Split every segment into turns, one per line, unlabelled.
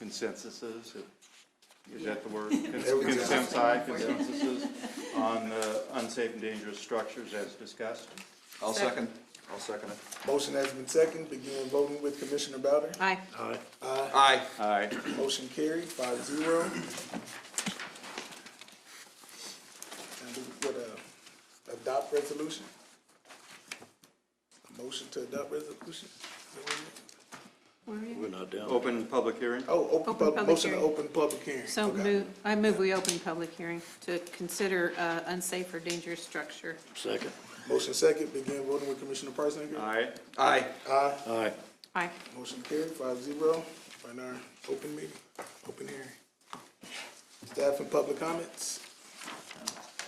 consensuses, if- is that the word?
we go.
Consensi, consensuses on uh, unsafe and dangerous structures as discussed.
I'll second,
Second.
I'll second it.
Motion has been seconded, begin voting with Commissioner Bowder.
Aye.
Aye.
Aye.
Aye.
Motion carried, five zero. And we would, uh, adopt resolution? Motion to adopt resolution?
Where are you?
We're not down.
Open public hearing?
Oh, open
Open
public,
public
motion to
hearing.
open public hearing.
So
Okay.
move, I move we open public hearing to consider uh, unsafe or dangerous structure.
Second.
Motion second, begin voting with Commissioner Priceinger.
Aye.
Aye.
Aye.
Aye.
Aye.
Motion carried, five zero, for our open meeting, open hearing. Staff and public comments?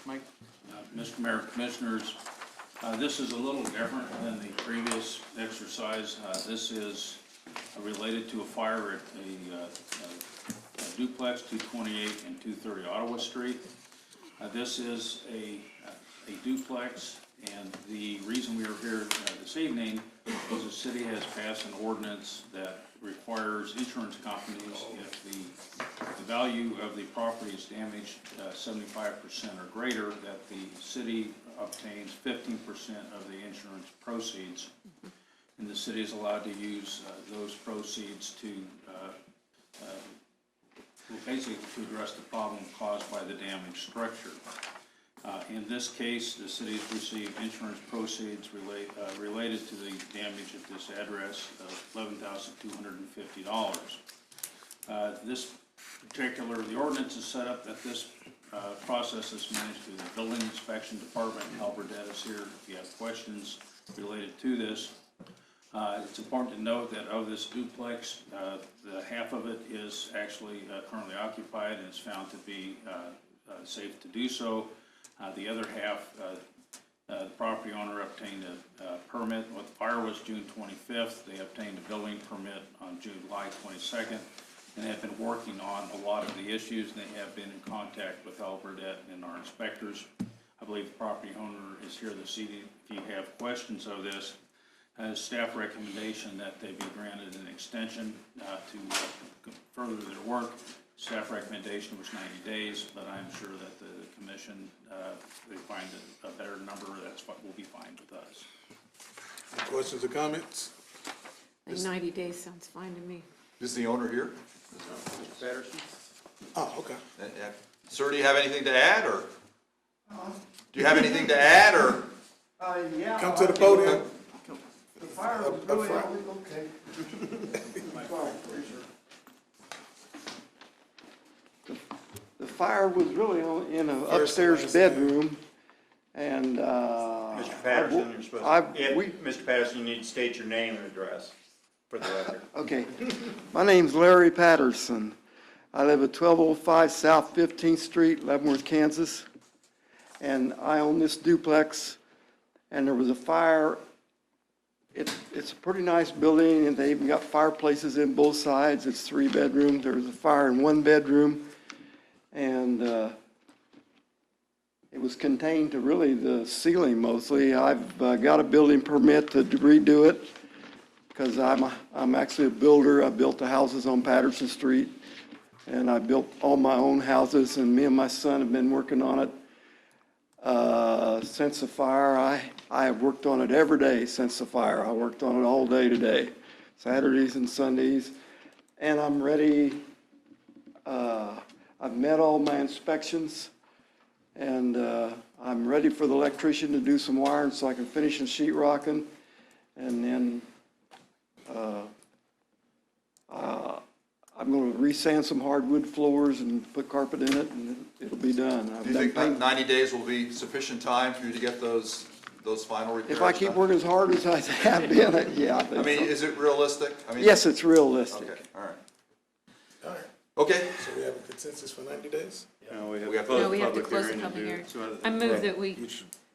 Mike? Mr. Uh, Mayor, Commissioners, uh, this is a little different than the previous exercise. Uh, This is uh, related to a fire at a, uh, a duplex, 228 and 230 Ottawa Street. Uh, This is a a duplex, and the reason we are here uh, this evening is the city has passed an ordinance that requires insurance companies, if the, the value of the property is damaged uh, seventy-five percent or greater, that the city obtains fifteen percent of the insurance proceeds. And the city is allowed to use uh, those proceeds to uh, well, basically to address the problem caused by the damaged structure. Uh, In this case, the city has received insurance proceeds relate- uh, related to the damage at this address of $11,250. Uh, This particular, the ordinance is set up that this uh, process is managed through the Building Inspection Department. Albert is here if you have questions related to this. Uh, It's important to note that of this duplex, uh, the half of it is actually uh, currently occupied and is found to be uh, uh, safe to do so. Uh, The other half, uh, uh, the property owner obtained a uh, permit, what the fire was June 25th, they obtained a building permit on July 22nd, and have been working on a lot of the issues, and they have been in contact with Albertette and our inspectors. I believe the property owner is here this evening if you have questions of this has staff recommendation that they be granted an extension uh, to uh, further their work. Staff recommendation was 90 days, but I'm sure that the commission, uh, they find a- a better number, that's what will be fine with us.
Any questions or comments?
I think Ninety days sounds fine to me.
Is the owner here?
Mr. Patterson?
Oh, okay.
Uh, yeah. Sir, do you have anything to add, or? Do you have anything to add, or?
Uh, yeah.
Come to the
I-
podium.
The fire
Up-
was
up
really,
front.
always okay. Sorry, Fraser. The fire was really only in an
First
upstairs
last name.
bedroom, and, uh.
Mr.
I
Patterson,
wo-
you're supposed to.
I,
Yeah,
we,
Mr. Patterson, you need to state your name and address for the record.
Okay. My name's Larry Patterson. I live at 1205 South 15th Street, Leavenworth, Kansas. And I own this duplex, and there was a fire. It's, it's a pretty nice building, and they even got fireplaces in both sides. It's three bedrooms. There was a fire in one bedroom, and uh, it was contained to really the ceiling mostly. I've uh, got a building permit to redo it because I'm, a- I'm actually a builder. I built the houses on Patterson Street, and I built all my own houses, and me and my son have been working on it uh, since the fire. I, I have worked on it every day since the fire. I worked on it all day today, Saturdays and Sundays, and I'm ready. uh, I've met all my inspections, and uh, I'm ready for the electrician to do some wiring so I can finish the sheet rocking, and then uh, I'm gonna re-sand some hardwood floors and put carpet in it, and it'll be done. I've
Do you
done
think that
paint-
ninety days will be sufficient time for you to get those, those final repairs
If I keep
done?
working as hard as I have been, I- yeah. I
I
think
mean,
so.
is it realistic? I mean-
Yes, it's realistic.
Okay, all right.
All right,
Okay,
so we have a consensus for ninety days?
No, Uh, we have
We have to-
closed
No, we have to
public
close the
hearing and
public
do
hearing.
two other
I
things.
move that we,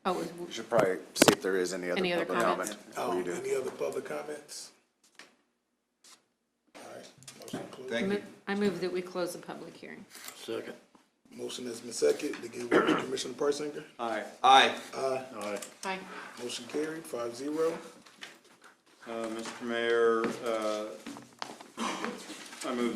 oh, it
You
was-
should probably see if there is any other
Any other
public
comments?
comment before
Um,
you do.
Any other public comments? All right, motion closed.
thank you.
I move that we close the public hearing.
Second.
Motion has been seconded, begin voting with Commissioner Priceinger.
Aye.
Aye.
Aye.
Aye.
Motion carried, five zero.
Uh, Mr. Mayor, uh, I move